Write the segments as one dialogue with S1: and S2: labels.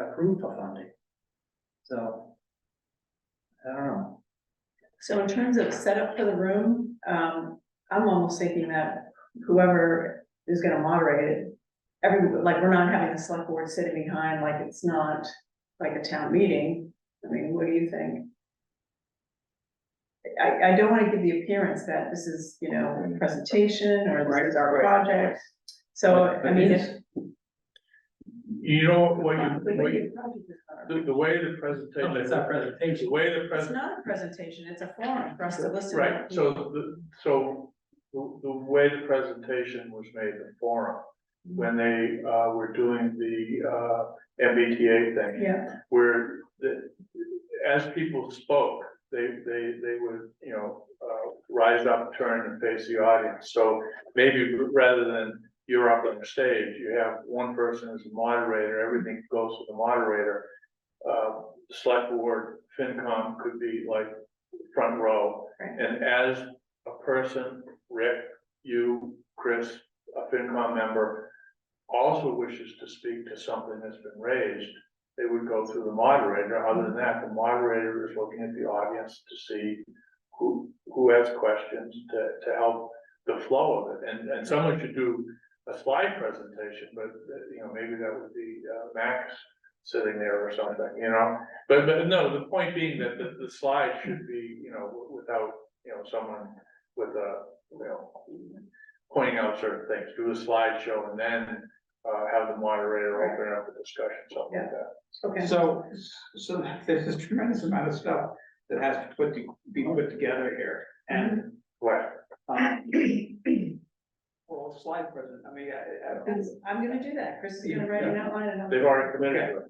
S1: approved for funding. So. I don't know.
S2: So in terms of setup for the room, um, I'm almost thinking that whoever is gonna moderate it. Every, like, we're not having the select board sitting behind, like, it's not like a town meeting, I mean, what do you think? I, I don't wanna give the appearance that this is, you know, a presentation, or this is our
S1: Right, right.
S2: project, so,
S1: But- but
S2: I mean,
S1: it's-
S2: if.
S3: You know, what you, what you,
S2: It's
S3: the, the way the presentation.
S1: No,
S4: Oh,
S1: it's not presentation.
S3: The way the presentation,
S2: not a presentation, it's a forum for us to listen. to
S3: right, so the, so the, the way the presentation was made, the forum, when they, uh, were doing the, uh, MBTA thing.
S2: Yeah,
S3: where the, as people spoke, they, they, they would, you know, uh, rise up, turn and face the audience. So maybe rather than you're up on the stage, you have one person as a moderator, everything goes to the moderator. Uh, select board, FinCom could be like front row.
S2: Right.
S3: And as a person, Rick, you, Chris, a FinCom member, also wishes to speak to something that's been raised, they would go through the moderator. Other than that, the moderator is looking at the audience to see who, who has questions to, to help the flow of it. And, and someone should do a slide presentation, but, uh, you know, maybe that would be uh, Max sitting there or something, you know? But, but no, the point being that the, the slide should be, you know, without, you know, someone with a, you know, pointing out certain things, do a slideshow and then, uh, have the moderator open up the discussion, something like that.
S2: okay.
S4: So, so there's a tremendous amount of stuff that has to put, to- be put together here, and,
S3: Right,
S4: um. Well, slide present, I mean, I, I.
S2: That's, I'm gonna do that, Chris is gonna write an outline and I'll.
S3: they've already committed to it.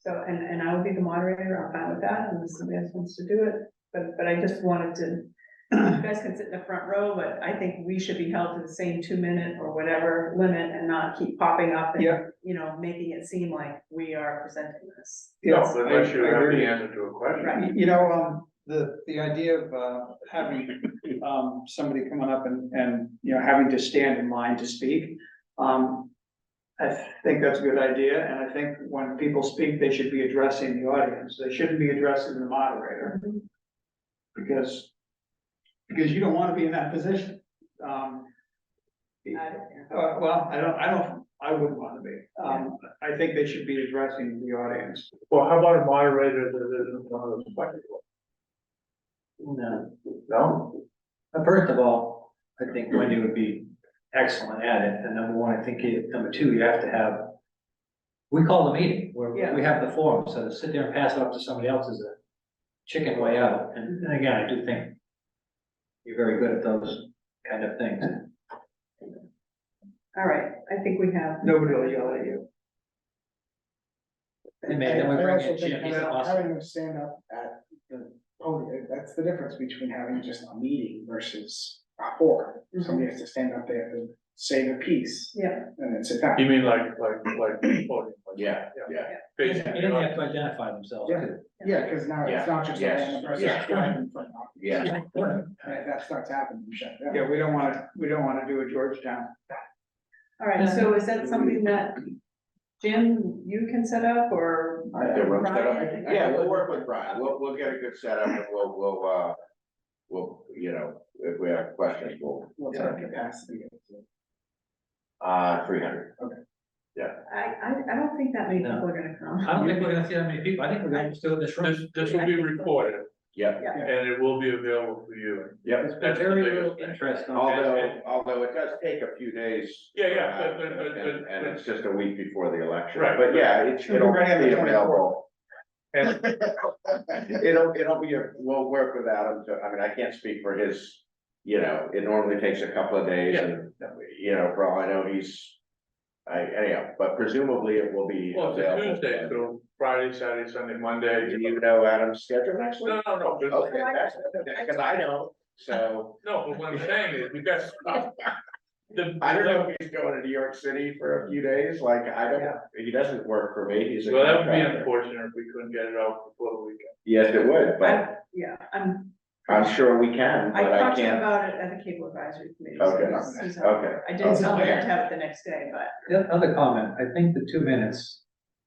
S2: So, and, and I will be the moderator, I'm fine with that, unless somebody else wants to do it, but, but I just wanted to. You guys can sit in the front row, but I think we should be held to the same two minute or whatever limit and not keep popping up and,
S4: Yeah.
S2: you know, making it seem like we are presenting this.
S3: No,
S4: yes,
S3: but
S4: I-
S3: they should
S4: I
S3: have
S4: agree.
S3: the answer to a question.
S2: Right.
S4: You- You know, um, the, the idea of, uh, having, um, somebody coming up and, and, you know, having to stand in line to speak. Um, I think that's a good idea, and I think when people speak, they should be addressing the audience, they shouldn't be addressing the moderator. Because, because you don't wanna be in that position. Um,
S2: I don't care.
S4: uh, well, I don't, I don't, I wouldn't wanna be. Um, I think they should be addressing the audience.
S3: Well, how about a moderator that isn't one of those black people?
S1: No,
S3: No?
S1: Uh, first of all, I think Wendy would be excellent at it, and number one, I think, you- number two, you have to have. We call the meeting, where
S2: Yeah.
S1: we have the forum, so to sit there and pass it off to somebody else is a chicken way out, and, and again, I do think. You're very good at those kind of things.
S2: All right, I think we have,
S4: Nobody will yell at you.
S1: And maybe then we
S5: I- I
S1: bring
S5: also
S1: in Jim,
S5: think
S1: he's
S5: having-
S1: awesome.
S5: Having them stand up at the podium, that's the difference between having just a meeting versus a forum. Somebody has to stand up, they have to say the piece
S2: Mm-hmm. yeah,
S5: and then sit down.
S3: You mean like, like, like. podium, like-
S6: Yeah, yeah.
S2: Yeah.
S3: Facing
S1: And then
S3: the
S1: they have
S3: audience.
S1: to identify themselves
S5: Yeah.
S1: too.
S5: Yeah, because now
S6: Yeah,
S5: it's not just a
S6: yes,
S5: random person.
S6: yeah.
S5: standing in front of you.
S6: Yeah.
S5: And if that starts happening, you shut down.
S4: Yeah, we don't wanna, we don't wanna do a Georgetown.
S2: all right, so is that something that Jim, you can set up or?
S6: I have the room set up.
S2: Brian?
S6: Yeah, we'll work with Brian. We'll, we'll get a good setup and we'll, we'll, uh, we'll, you know, if we have questions, we'll,
S5: What's our capacity?
S6: uh, three hundred.
S2: I, I, I don't think that many people
S1: No.
S2: are gonna come.
S1: I don't think we're gonna see that many people, I think we're gonna still in this room.
S3: This, this will be recorded
S6: Yep.
S3: and it will be available for you.
S6: Yep.
S1: There's been
S3: That's the
S1: very
S3: biggest
S1: little
S3: thing. Oh.
S1: interest on.
S6: Although, although it does take a few days.
S3: Yeah, yeah, but- but- but-
S6: And,
S3: but-
S6: and it's just a week before the election.
S3: Right.
S6: But yeah, it,
S5: Should be
S6: it'll
S5: ready on the
S6: be available. And it'll, it'll be, a- we'll work with Adam to, I mean, I can't speak for his, you know, it normally takes a couple of days
S3: Yeah.
S6: and, you know, for all I know, he's. I, anyhow, but presumably it will be
S3: Well, it's a
S6: available.
S3: Tuesday, so Friday, Saturday, Sunday, Monday.
S6: Do you know Adam's schedule next week?
S3: No, no, no, but-
S6: Okay, that's, because I don't, so.
S3: no, but what I'm saying is, we got stuff. The-
S6: I don't know if he's going to New York City for a few days, like, I don't, he doesn't work for me, he's a
S3: Well, that would be
S6: contractor.
S3: unfortunate if we couldn't get it out before the weekend.
S6: Yes, it would, but
S2: I- Yeah, I'm,
S6: I'm sure we can,
S2: I
S6: but I
S2: talked to him
S6: can't.
S2: about it at the cable advisory committee. so
S6: Okay,
S2: he's- he's on.
S6: okay.
S2: I didn't
S6: Okay.
S2: tell him to have it the next day, but
S1: The other comment, I think the two minutes